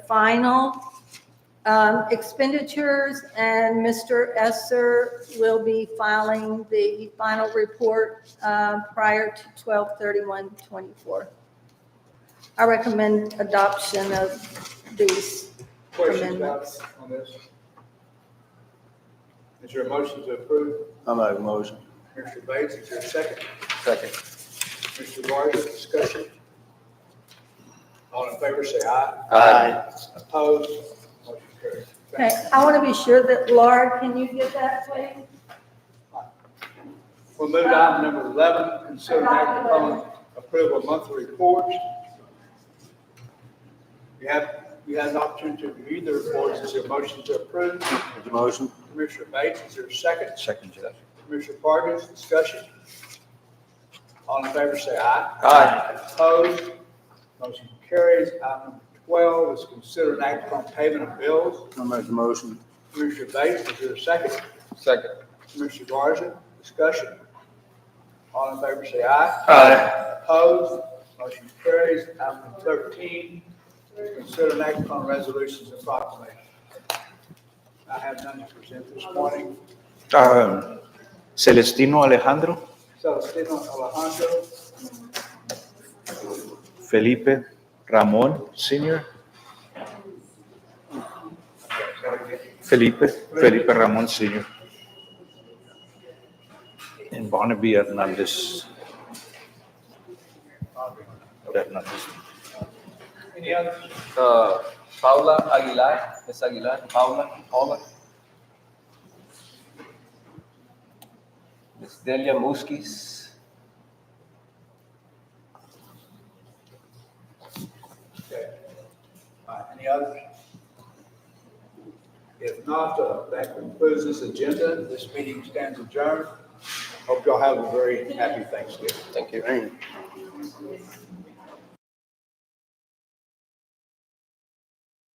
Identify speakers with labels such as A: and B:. A: final um, expenditures, and Mr. Esser will be filing the final report uh, prior to 12/31/24. I recommend adoption of these.
B: Questions about,
A: Amendments.
B: on this? Is there a motion to approve?
C: I'll make a motion.
B: Mr. Bates, is there a second?
C: Second.
B: Mr. Rogers, discussion? All in favor, say aye.
C: Aye.
B: Opposed? Motion carries.
A: Okay, I want to be sure that, Laura, can you get that, please?
B: We'll move to item number 11, consider and act upon approval of monthly reports. You have, you have an opportunity to review the reports, is there a motion to approve?
C: Make a motion.
B: Commissioner Bates, is there a second?
C: Second, Judge.
B: Commissioner Parkins, discussion? All in favor, say aye.
C: Aye.
B: Opposed? Motion carries. Item number 12 is consider an act upon payment of bills.
C: I'll make a motion.
B: Commissioner Bates, is there a second?
C: Second.
B: Commissioner Garza, discussion? All in favor, say aye.
C: Aye.
B: Opposed? Motion carries. Item number 13 is consider an act upon resolutions and proclamations. I have none to present this morning.
D: Ah, Celestino Alejandro,
B: Celestino Alejandro,
D: Felipe Ramón Senior, Felipe, Felipe Ramón Senior. And Barnaby Hernandez. Hernandez.
B: any others?
E: Uh, Paula Aguilar, Ms. Aguilar, Paula, Paula. Ms. Delia Muskis.
B: Okay. All right, any others? If not, uh, that concludes this agenda. This meeting stands adjourned. Hope y'all have a very happy Thanksgiving.
E: Thank you.
C: Aye.